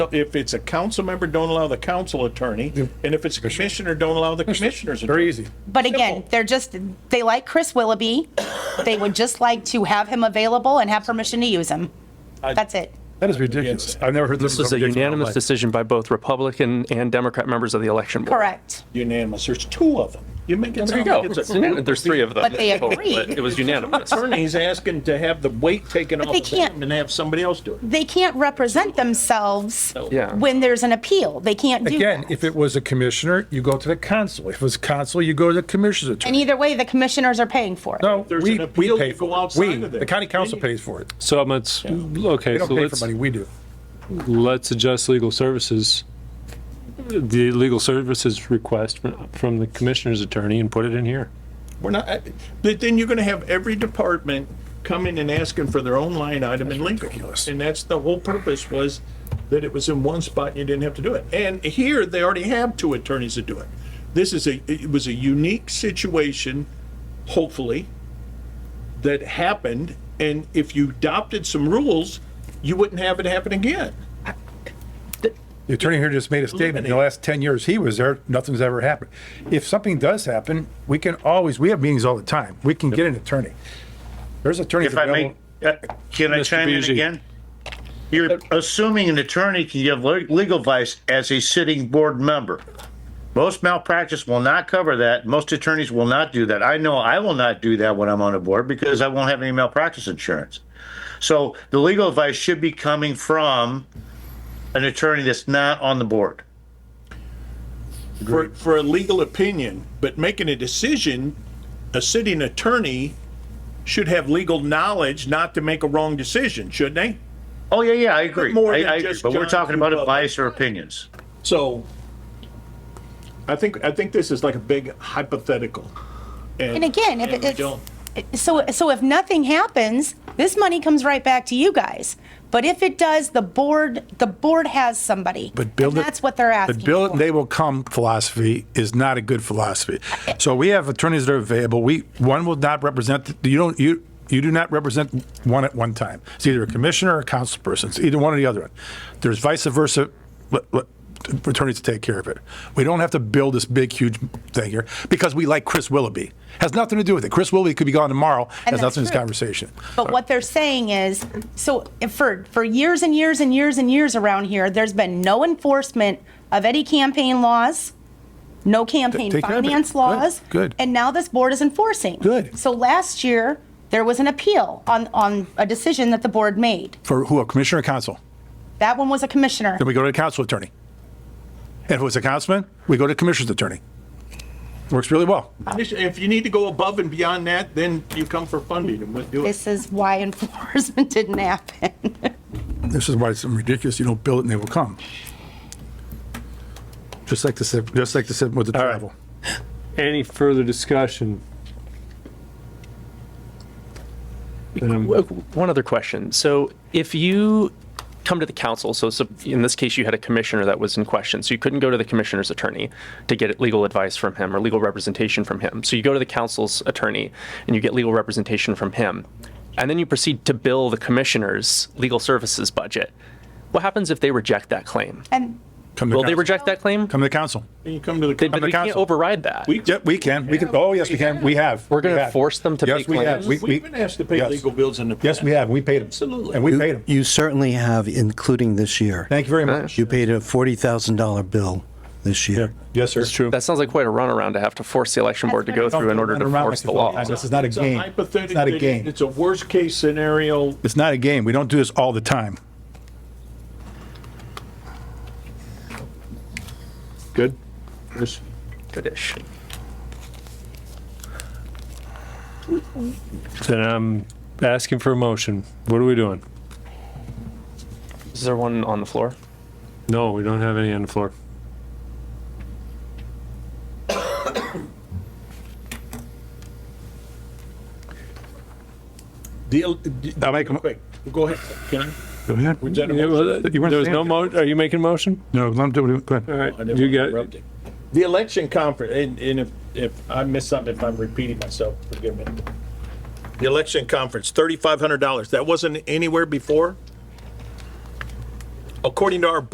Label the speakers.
Speaker 1: If it's a council member, don't allow the council attorney, and if it's a commissioner, don't allow the commissioner's
Speaker 2: Very
Speaker 1: attorney.
Speaker 2: easy.
Speaker 3: But again,
Speaker 1: Simple.
Speaker 3: they're just, they like Chris Willoughby. They would just like to have him available and have permission to use him. That's it.
Speaker 2: That is ridiculous. I've never heard this.
Speaker 4: This was a unanimous decision by both Republican and Democrat members of the election board.
Speaker 3: Correct.
Speaker 1: Unanimous, there's two of them. You make it
Speaker 4: There
Speaker 1: sound
Speaker 4: you go.
Speaker 1: like it's
Speaker 4: It's
Speaker 1: a
Speaker 4: unan- There's three of them.
Speaker 3: But they
Speaker 4: total,
Speaker 3: agreed.
Speaker 4: but It was unanimous.
Speaker 1: Attorney's asking to have the weight taken off
Speaker 3: they
Speaker 1: of them
Speaker 3: can't-
Speaker 1: and have somebody else do it.
Speaker 3: They can't represent themselves
Speaker 4: Yeah.
Speaker 3: when there's an appeal. They can't do
Speaker 2: Again,
Speaker 3: that.
Speaker 2: if it was a commissioner, you go to the council. If it was council, you go to the commissioner's
Speaker 3: And
Speaker 2: attorney.
Speaker 3: either way, the commissioners are paying for it.
Speaker 2: No,
Speaker 1: There's
Speaker 2: we,
Speaker 1: an
Speaker 2: we
Speaker 1: appeal,
Speaker 2: pay
Speaker 1: you go
Speaker 2: for it.
Speaker 1: outside
Speaker 2: We,
Speaker 1: of
Speaker 2: the
Speaker 1: there.
Speaker 2: county council pays for it.
Speaker 5: So let's,
Speaker 2: They
Speaker 5: okay, so
Speaker 2: don't pay for
Speaker 5: let's,
Speaker 2: money, we do.
Speaker 5: let's adjust legal services, the legal services request from- from the commissioner's attorney and put it in here.
Speaker 1: We're not, I- but then you're gonna have every department coming and asking for their own line item in Lincoln. And that's the whole purpose was that it was in one spot and you didn't have to do it. And here, they already have two attorneys that do it. This is a, it was a unique situation, hopefully, that happened. And if you adopted some rules, you wouldn't have it happen again.
Speaker 2: The attorney here just made a statement, in the last 10 years he was there, nothing's ever happened. If something does happen, we can always, we have meetings all the time, we can get an attorney. There's attorneys
Speaker 6: If I may,
Speaker 2: available.
Speaker 6: uh, can I
Speaker 5: Mr.
Speaker 6: chime in
Speaker 5: Buzzi.
Speaker 6: again?
Speaker 1: Uh,
Speaker 6: You're assuming an attorney can give le- legal advice as a sitting board member. Most malpractice will not cover that. Most attorneys will not do that. I know I will not do that when I'm on a board because I won't have any malpractice insurance. So the legal advice should be coming from an attorney that's not on the board.
Speaker 1: for, for a legal opinion, but making a decision, a sitting attorney should have legal knowledge not to make a wrong decision, shouldn't they?
Speaker 6: Oh, yeah, yeah, I agree.
Speaker 1: more than
Speaker 6: I- I agree.
Speaker 1: just
Speaker 6: But we're
Speaker 1: John
Speaker 6: talking about
Speaker 1: Kubala.
Speaker 6: advice or opinions.
Speaker 1: So I think, I think this is like a big hypothetical.
Speaker 3: And again,
Speaker 1: and
Speaker 3: if it-
Speaker 1: we
Speaker 3: it's,
Speaker 1: don't-
Speaker 3: so, so if nothing happens, this money comes right back to you guys. But if it does, the board, the board has somebody.
Speaker 2: But build
Speaker 3: And
Speaker 2: it.
Speaker 3: That's what they're asking.
Speaker 2: But build it
Speaker 3: for.
Speaker 2: and they will come philosophy is not a good philosophy. So we have attorneys that are available. We, one will not represent, you don't, you, you do not represent one at one time. It's either a commissioner or a council person. It's either one or the other. one. There's vice versa let- let attorneys to take care of it. We don't have to build this big, huge thing here because we like Chris Willoughby. Has nothing to do with it. Chris Willoughby could be gone tomorrow. Has nothing to
Speaker 3: that's
Speaker 2: do with this
Speaker 3: true.
Speaker 2: conversation.
Speaker 3: But what they're saying is, so if for, for years and years and years and years around here, there's been no enforcement of any campaign laws, no campaign
Speaker 2: Take care of it.
Speaker 3: finance
Speaker 2: Good,
Speaker 3: laws.
Speaker 2: good.
Speaker 3: And now this board is enforcing.
Speaker 2: Good.
Speaker 3: So last year, there was an appeal on, on a decision that the board made.
Speaker 2: For who, a commissioner or council?
Speaker 3: That one was a commissioner.
Speaker 2: Then we go to the council attorney. And if it was a councilman, we go to commissioner's attorney. Works really well.
Speaker 1: If you need to go above and beyond that, then you come for funding and we'll do it.
Speaker 3: This is why enforcement didn't happen.
Speaker 2: This is why it's ridiculous. You don't build it and they will come. Just like the, sip- just like the sip with the
Speaker 5: right.
Speaker 2: travel.
Speaker 5: Any further discussion?
Speaker 4: One other question. So if you come to the council, so so in this case, you had a commissioner that was in question, so you couldn't go to the commissioner's attorney to get legal advice from him or legal representation from him. So you go to the council's attorney and you get legal representation from him. And then you proceed to bill the commissioner's legal services budget. What happens if they reject that claim?
Speaker 3: And
Speaker 2: Come to
Speaker 4: Will they
Speaker 2: council.
Speaker 4: reject that claim?
Speaker 2: Come to the council.
Speaker 1: You come to
Speaker 4: They-
Speaker 1: the,
Speaker 4: But we can't
Speaker 2: council.
Speaker 4: override that.
Speaker 2: Yeah, we can. We can. Oh, yes, we can. We have.
Speaker 4: We're gonna
Speaker 2: We have.
Speaker 4: force them to
Speaker 2: Yes,
Speaker 4: pay
Speaker 2: we have.
Speaker 4: claims?
Speaker 2: We- we-
Speaker 1: we've been asked to pay
Speaker 2: yes.
Speaker 1: legal bills in the.
Speaker 2: Yes, we have. We paid them.
Speaker 1: Absolutely.
Speaker 2: And we paid them.
Speaker 7: You certainly have, including this year.
Speaker 2: Thank you very much.
Speaker 7: You paid a $40,000 bill this year.
Speaker 2: Yes, sir. It's true.
Speaker 4: That sounds like quite a runaround to have to force the election board to go through in order to force the law.
Speaker 2: This is not a
Speaker 1: It's a
Speaker 2: game. It's not a
Speaker 1: hypothetical-
Speaker 2: game.
Speaker 1: It's a worst-case scenario.
Speaker 2: It's not a game. We don't do this all the time.
Speaker 5: Good?
Speaker 4: Good-ish.
Speaker 5: Then I'm asking for a motion. What are we doing?
Speaker 4: Is there one on the floor?
Speaker 5: No, we don't have any on the floor.
Speaker 1: Deal,
Speaker 2: I'll make a-
Speaker 1: quick, go ahead. Can I?
Speaker 2: Go ahead.
Speaker 5: Yeah, well, There
Speaker 2: You weren't
Speaker 5: was no
Speaker 2: saying-
Speaker 5: mo, are you making a motion?
Speaker 2: No, let him do it. Go ahead.
Speaker 5: All right,
Speaker 1: I never
Speaker 5: you got,
Speaker 1: interrupted. The election conference, and, and if, if I miss something, if I'm repeating myself, forgive me. The election conference, thirty-five hundred dollars. That wasn't anywhere before? According to our